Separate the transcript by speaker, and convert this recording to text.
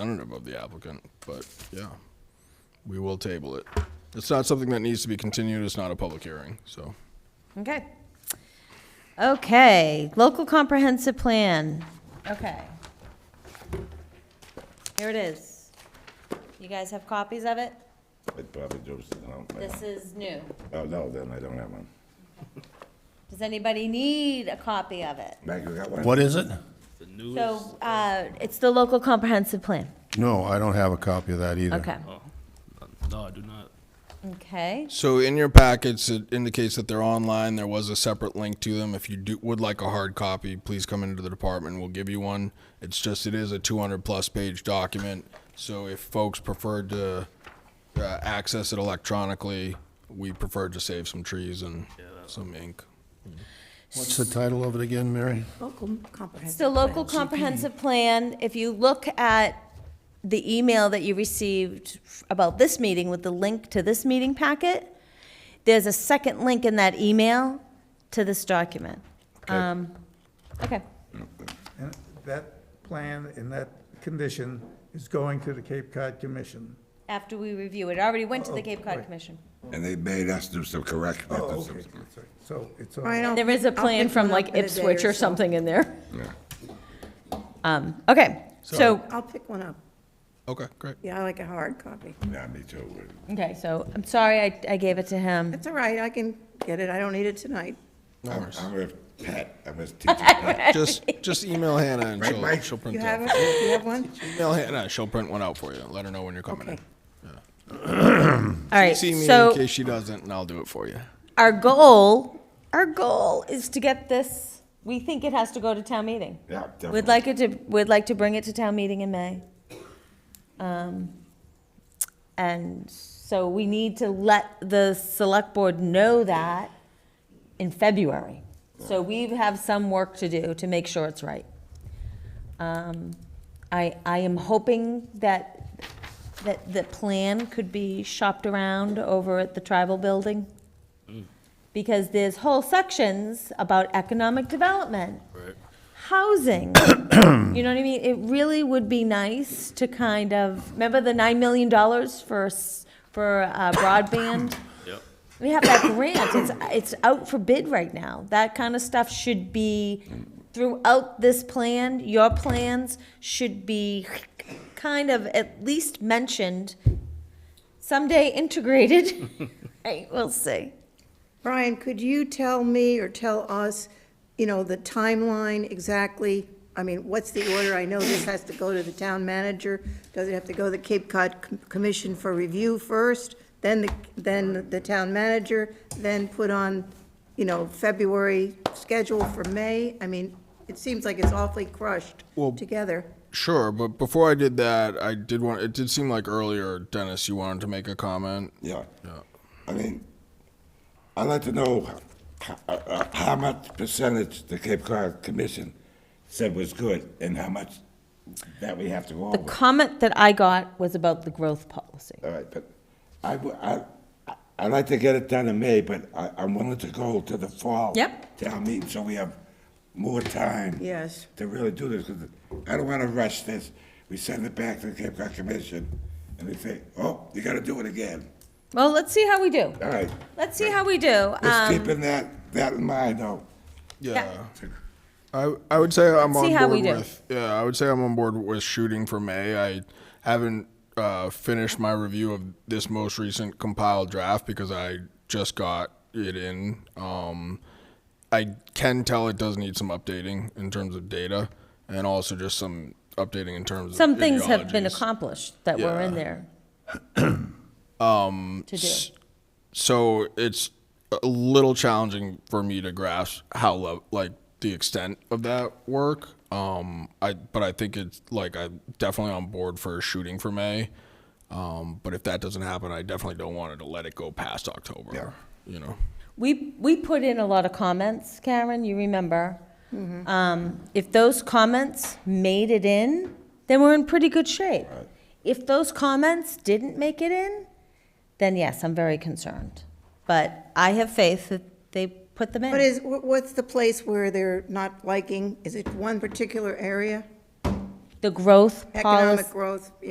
Speaker 1: representative of the applicant, but yeah, we will table it. It's not something that needs to be continued, it's not a public hearing, so.
Speaker 2: Okay. Okay, local comprehensive plan. Okay. Here it is. You guys have copies of it?
Speaker 3: It probably goes, no, I
Speaker 2: This
Speaker 3: don't-
Speaker 2: is new.
Speaker 3: oh, no, then I don't have one.
Speaker 2: Does anybody need a copy of it?
Speaker 3: Meg, you got one?
Speaker 4: What is it?
Speaker 2: So, uh, it's the local comprehensive plan.
Speaker 4: No, I don't have a copy of that either.
Speaker 2: Okay,
Speaker 5: No, I do not.
Speaker 2: okay.
Speaker 1: So in your packets, it indicates that they're online, there was a separate link to them. If you do, would like a hard copy, please come into the department, we'll give you one. It's just, it is a two hundred plus page document, so if folks preferred to, uh, access it electronically, we prefer to save some trees and some ink.
Speaker 4: What's the title of it again, Mary?
Speaker 6: Local comprehensive.
Speaker 2: It's the local comprehensive plan. If you look at the email that you received about this meeting with the link to this meeting packet, there's a second link in that email to this document. Um, Okay,
Speaker 7: And that plan in that condition is going to the Cape Cod Commission.
Speaker 2: after we review it, it already went
Speaker 1: Oh,
Speaker 2: to the Cape Cod Commission.
Speaker 3: And they made us do some correct.
Speaker 7: So it's, all-
Speaker 6: I don't-
Speaker 2: There is a
Speaker 6: I'll
Speaker 2: plan
Speaker 6: pick
Speaker 2: from
Speaker 6: one up
Speaker 2: like
Speaker 6: in a day
Speaker 2: Ipswich or
Speaker 6: so.
Speaker 2: something in there.
Speaker 3: Yeah.
Speaker 2: Um, Okay, so,
Speaker 6: I'll pick one up.
Speaker 1: Okay, great.
Speaker 6: Yeah, I like a hard copy.
Speaker 3: Yeah, me too.
Speaker 2: okay, so I'm sorry I, I gave it to him.
Speaker 6: It's all right, I can get it, I don't need it tonight.
Speaker 1: No
Speaker 3: I'm
Speaker 1: worries.
Speaker 3: I'm with Pat, I'm with teacher Pat.
Speaker 1: Just, just email Hannah and
Speaker 3: Right,
Speaker 1: she'll,
Speaker 3: Mike?
Speaker 1: she'll print
Speaker 6: You
Speaker 1: it
Speaker 6: have
Speaker 1: out.
Speaker 6: it, you have one?
Speaker 1: Email Hannah, she'll print one out for you. Let her know when you're coming in.
Speaker 6: Okay.
Speaker 2: All right,
Speaker 1: See me
Speaker 2: so.
Speaker 1: in case she doesn't, and I'll do it for you.
Speaker 2: our goal, our goal is to get this, we think it has to go to town meeting.
Speaker 3: Yeah,
Speaker 2: We'd
Speaker 3: definitely.
Speaker 2: like it to, we'd like to bring it to town meeting in May. Um, And so we need to let the select board know that in February. So we have some work to do to make sure it's right. Um, I, I am hoping that, that the plan could be shopped around over at the tribal building. Because there's whole sections about economic development housing. you know what I mean? It really would be nice to kind of, remember the $9 million for, s- for uh, broadband?
Speaker 5: Yep.
Speaker 2: We have that grant, it's, it's out for bid right now. That kind of stuff should be throughout this plan, your plans should be kind of at least mentioned, someday integrated. Right, we'll see.
Speaker 6: Brian, could you tell me or tell us, you know, the timeline exactly? I mean, what's the order? I know this has to go to the town manager. Does it have to go to the Cape Cod Com- Commission for review first, then the, then the town manager, then put on, you know, February schedule for May? I mean, it seems like it's awfully crushed together.
Speaker 1: Sure, but before I did that, I did want. It did seem like earlier, Dennis, you wanted to make a comment.
Speaker 3: Yeah. I mean, I'd like to know how, uh, how much percentage the Cape Cod Commission said was good and how much that we have to go
Speaker 2: The
Speaker 3: over.
Speaker 2: comment that I got was about the growth policy.
Speaker 3: All right, but I, w- I, I- I'd like to get it done in May, but I, I'm willing to go to the fall.
Speaker 2: Yep.
Speaker 3: Town meeting, so we have more time.
Speaker 6: Yes.
Speaker 3: To really do this, 'cause I don't wanna rush this. We send it back to the Cape Cod Commission, and they say, oh, you gotta do it again.
Speaker 2: Well, let's see how we do.
Speaker 3: All right,
Speaker 2: Let's see how we do.
Speaker 3: just
Speaker 2: Um,
Speaker 3: keeping that, that in mind, though.
Speaker 1: Yeah,
Speaker 2: Yeah.
Speaker 1: I I would say I'm
Speaker 2: Let's see
Speaker 1: on
Speaker 2: how
Speaker 1: board
Speaker 2: we do.
Speaker 1: with. Yeah, I would say I'm on board with shooting for May. I haven't uh, finished my review of this most recent compiled draft because I just got it in. Um, I can tell it does need some updating in terms of data, and also just some updating in terms
Speaker 2: Some
Speaker 1: of
Speaker 2: things have been
Speaker 1: ideologies.
Speaker 2: accomplished that were in
Speaker 1: Yeah.
Speaker 2: there. To do.
Speaker 1: so it's a little challenging for me to grasp how lo- like the extent of that work um i but i think it's like i'm definitely on board for shooting for may um but if that doesn't happen i definitely don't want to let it go past october you know
Speaker 2: We, we put in a lot of comments, Karen, you remember.
Speaker 6: Mm-hmm.
Speaker 2: Um, If those comments made it in, then we're in pretty good shape. If those comments didn't make it in, then yes, I'm very concerned. But I have faith that they put them in.
Speaker 6: What is, wh- what's the place where they're not liking? Is it one particular area?
Speaker 2: the growth policy.
Speaker 6: Economic growth, yeah.